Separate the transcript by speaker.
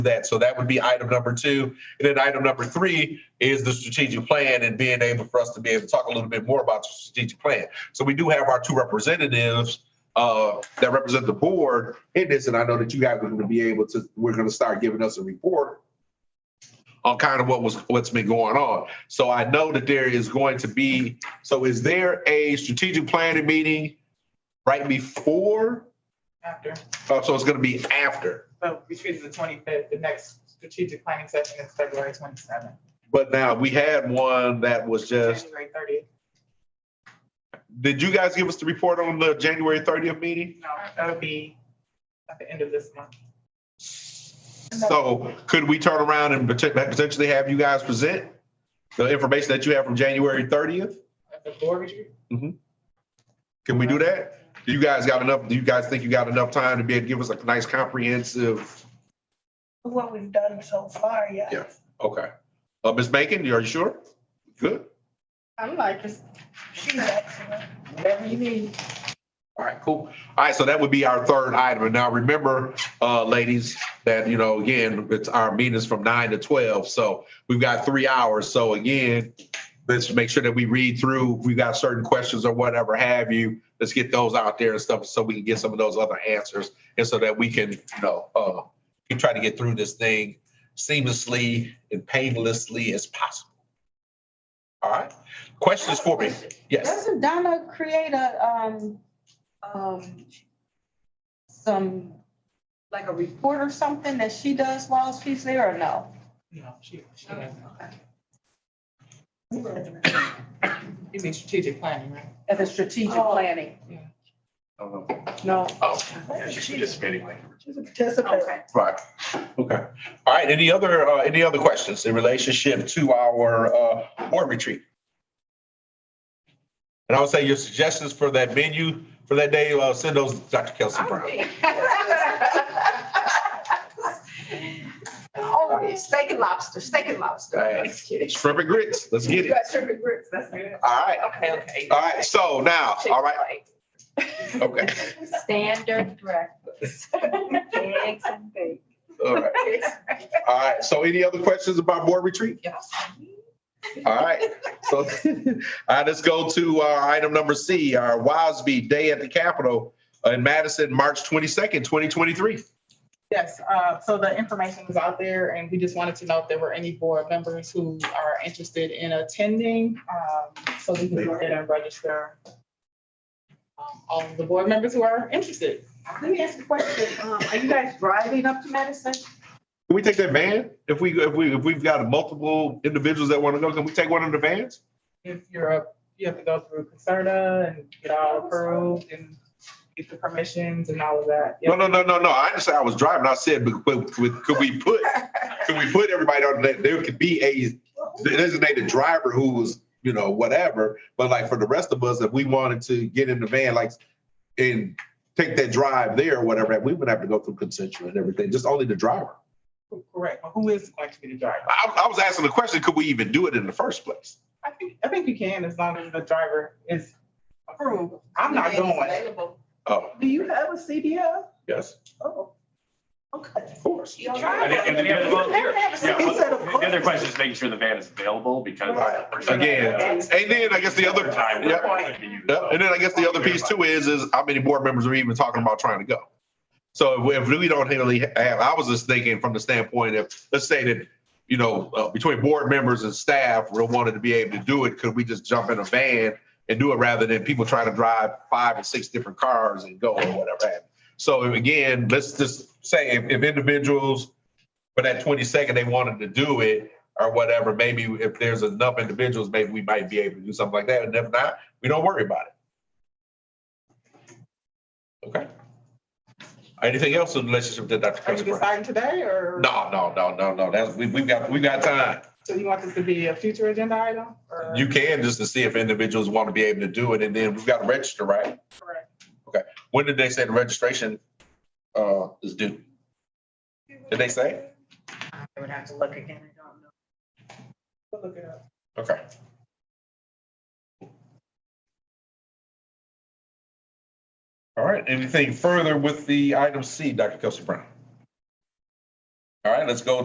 Speaker 1: that. So that would be item number two. And then item number three is the strategic plan and being able for us to be able to talk a little bit more about the strategic plan. So we do have our two representatives uh, that represent the board in this, and I know that you guys are going to be able to, we're going to start giving us a report on kind of what was, what's been going on. So I know that there is going to be, so is there a strategic planning meeting right before?
Speaker 2: after.
Speaker 1: Oh, So it's going to be after.
Speaker 2: So between the twenty-fifth, the next strategic planning session is February twenty-seventh,
Speaker 1: But now, we had one that was just,
Speaker 2: January thirtieth.
Speaker 1: did you guys give us the report on the January thirtieth meeting?
Speaker 2: No, that would be at the end of this month.
Speaker 1: So could we turn around and potent- potentially have you guys present the information that you have from January thirtieth?
Speaker 2: At the board retreat?
Speaker 1: Can we do that? Do you guys got enough, do you guys think you got enough time to be able to give us a nice comprehensive?
Speaker 3: what we've done so far, yeah.
Speaker 1: Yeah. Okay. Uh, Ms. Bacon, are you sure? Good.
Speaker 4: I'm like, it's-
Speaker 3: She's excellent.
Speaker 4: whatever you need.
Speaker 1: All right, cool. All right, so that would be our third item. And now remember, uh, ladies, that, you know, again, it's our meetings from nine to twelve, so we've got three hours. So again, let's make sure that we read through, if we've got certain questions or whatever have you, let's get those out there and stuff, so we can get some of those other answers. And so that we can, you know, uh, we try to get through this thing seamlessly and painlessly as possible. All right, questions for me? Yes,
Speaker 4: Doesn't Donna create a, um, um, some, like a report or something that she does while she's there or no?
Speaker 2: No, she, she
Speaker 4: Oh,
Speaker 2: doesn't. You mean strategic planning, right?
Speaker 4: At the strategic
Speaker 5: Oh.
Speaker 4: planning?
Speaker 1: Uh-huh.
Speaker 4: No.
Speaker 1: Oh,
Speaker 3: Yeah, she's participating. She's a participant.
Speaker 1: Right. Okay. All right. Any other, uh, any other questions in relationship to our, uh, board retreat? And I would say your suggestions for that venue for that day, uh, send those to Dr. Kelsey Brown.
Speaker 5: Oh, yeah, steak and lobster, steak and lobster.
Speaker 1: Right.
Speaker 5: Just kidding.
Speaker 1: Shrimp and grits. Let's get
Speaker 5: You
Speaker 1: it.
Speaker 5: got shrimp and grits, that's good.
Speaker 1: All right.
Speaker 5: Okay, okay.
Speaker 1: All right. So now, all right. Okay.
Speaker 6: Standard breakfast. Eggs and bacon.
Speaker 1: All right. All right. So any other questions about board retreat? All right, so I just go to uh, item number C, our WASB Day at the Capitol in Madison, March 22nd, 2023.
Speaker 2: Yes, uh, so the information is out there and we just wanted to know if there were any board members who are interested in attending. um, So we can go ahead and register um, all of the board members who are interested.
Speaker 4: Let me ask a question. Um, are you guys driving up to Madison?
Speaker 1: Can we take that van? If we, if we, if we've got multiple individuals that want to go, can we take one of the vans?
Speaker 2: if you're up, you have to go through Concerta and get all approved and get the permissions and all of that.
Speaker 1: No, no, no, no, no. I understand. I was driving. I said, but, but, but could we put, could we put everybody on that? There could be a designated driver who was, you know, whatever. But like for the rest of us, if we wanted to get in the van, like, and take that drive there or whatever, we would have to go through consensual and everything, just only the driver.
Speaker 2: Correct, but who is going to be the driver?
Speaker 1: I, I was asking the question, could we even do it in the first place?
Speaker 2: I think, I think you can as long as the driver is approved. I'm not
Speaker 4: It's
Speaker 2: going.
Speaker 4: available.
Speaker 1: Oh,
Speaker 3: Do you have a CDL?
Speaker 1: yes,
Speaker 3: Oh, okay.
Speaker 1: of course.
Speaker 4: You
Speaker 7: And then- and then you have to volunteer. Yeah,
Speaker 3: He said,
Speaker 7: well,
Speaker 3: "Of
Speaker 7: The the other
Speaker 3: course."
Speaker 7: question is making sure the van is available because.
Speaker 1: Right. Again, And then I guess the other,
Speaker 7: Time.
Speaker 1: yeah, Yeah, and then I guess the other piece too is, is how many board members are even talking about trying to go? So if we don't really have, I was just thinking from the standpoint of, let's say that, you know, uh, between board members and staff, we wanted to be able to do it, could we just jump in a van and do it rather than people trying to drive five and six different cars and go or whatever? have you. So again, let's just say if, if individuals for that twenty-second, they wanted to do it or whatever, maybe if there's enough individuals, maybe we might be able to do something like that. And if not, we don't worry about it. Okay. Anything else in relationship to Dr.
Speaker 2: Are
Speaker 1: Chris
Speaker 2: you
Speaker 1: Brown?
Speaker 2: deciding today or?
Speaker 1: No, no, no, no, no. That's, we, we've got, we've got time.
Speaker 2: So you want this to be a future agenda item or?
Speaker 1: You can just to see if individuals want to be able to do it and then we've got to register, right?
Speaker 2: Correct.
Speaker 1: When did they say the registration, uh, is due? Did they say?
Speaker 4: I would have to look again. I don't know.
Speaker 2: We'll look it up.
Speaker 1: Okay. All right, anything further with the item C, Dr. Kelsey Brown? All right, let's go